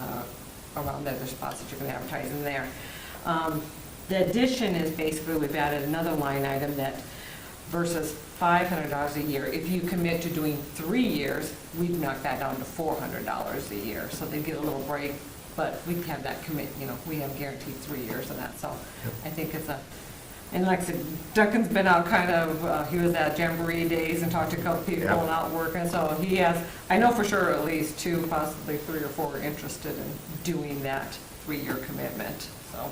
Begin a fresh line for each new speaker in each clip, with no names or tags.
uh, around other spots that you can advertise in there. Um, The addition is basically, we've added another line item that versus $500 a year. If you commit to doing three years, we'd knock that down to $400 a year. So they get a little break, but we have that commit, you know, we have guaranteed three years of that. So I think it's a, and like I said, Duncan's been out kind of, uh, he was at Jamboree Days and talked to a couple people
Yeah.
and out working. So he has, I know for sure at least two, possibly three or four are interested in doing that three-year commitment, so.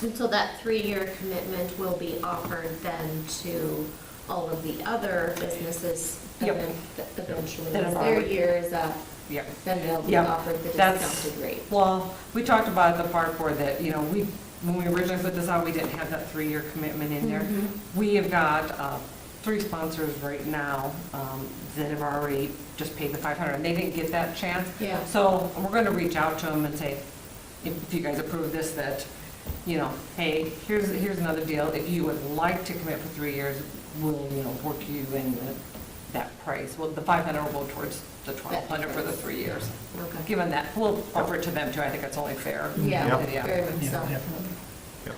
And so that three-year commitment will be offered then to all of the other businesses that
Yep.
then- that eventually,
That
once
have
their
already-
year is up,
Yep.
then they'll be
Yep.
offered the
That's-
discounted rate.
Well, we talked about at the park board that, you know, we, when we originally put this out, we didn't have that three-year commitment in there.
Mhm.
We have got uh, three sponsors right now um, that have already just paid the 500, and they didn't get that chance.
Yeah.
So we're going to reach out to them and say, if you guys approve this, that, you know, hey, here's, here's another deal. If you would like to commit for three years, we'll, you know, work you in the- that price. Well, the 500 will go towards the 1,200 for the three years.
Okay.
Given that, we'll offer it to them too, I think that's only fair.
Yeah,
Yep.
very much so.
Yeah.
Yep.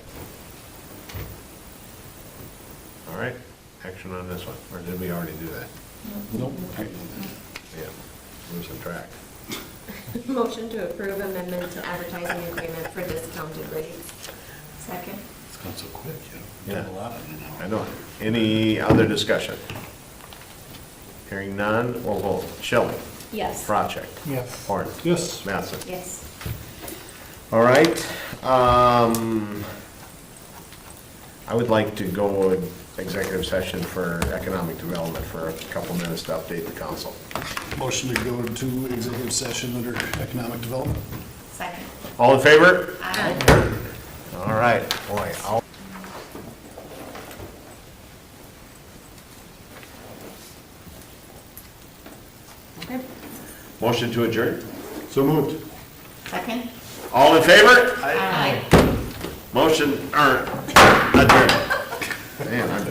All right, action on this one, or did we already do that?
Nope.
Yeah, losing track.
Motion to approve amendment to advertising agreement for discounted rates. Second.
It's gone so quick, you know,
Yeah.
done a lot in an hour.
I know. Any other discussion? Hearing none, we'll vote. Shelley?
Yes.
Project?
Yes.
Horn?
Yes.
Mattson?
Yes.
All right. um, I would like to go in executive session for economic development for a couple minutes to update the council.
Motion to go to executive session under economic development.
Second.
All in favor?
Aye.
All right, boy, I'll
Okay.
Motion to adjourn? So moved.
Second.
All in favor? er,
Aye.
Motion, or, adjourn. Man, I'm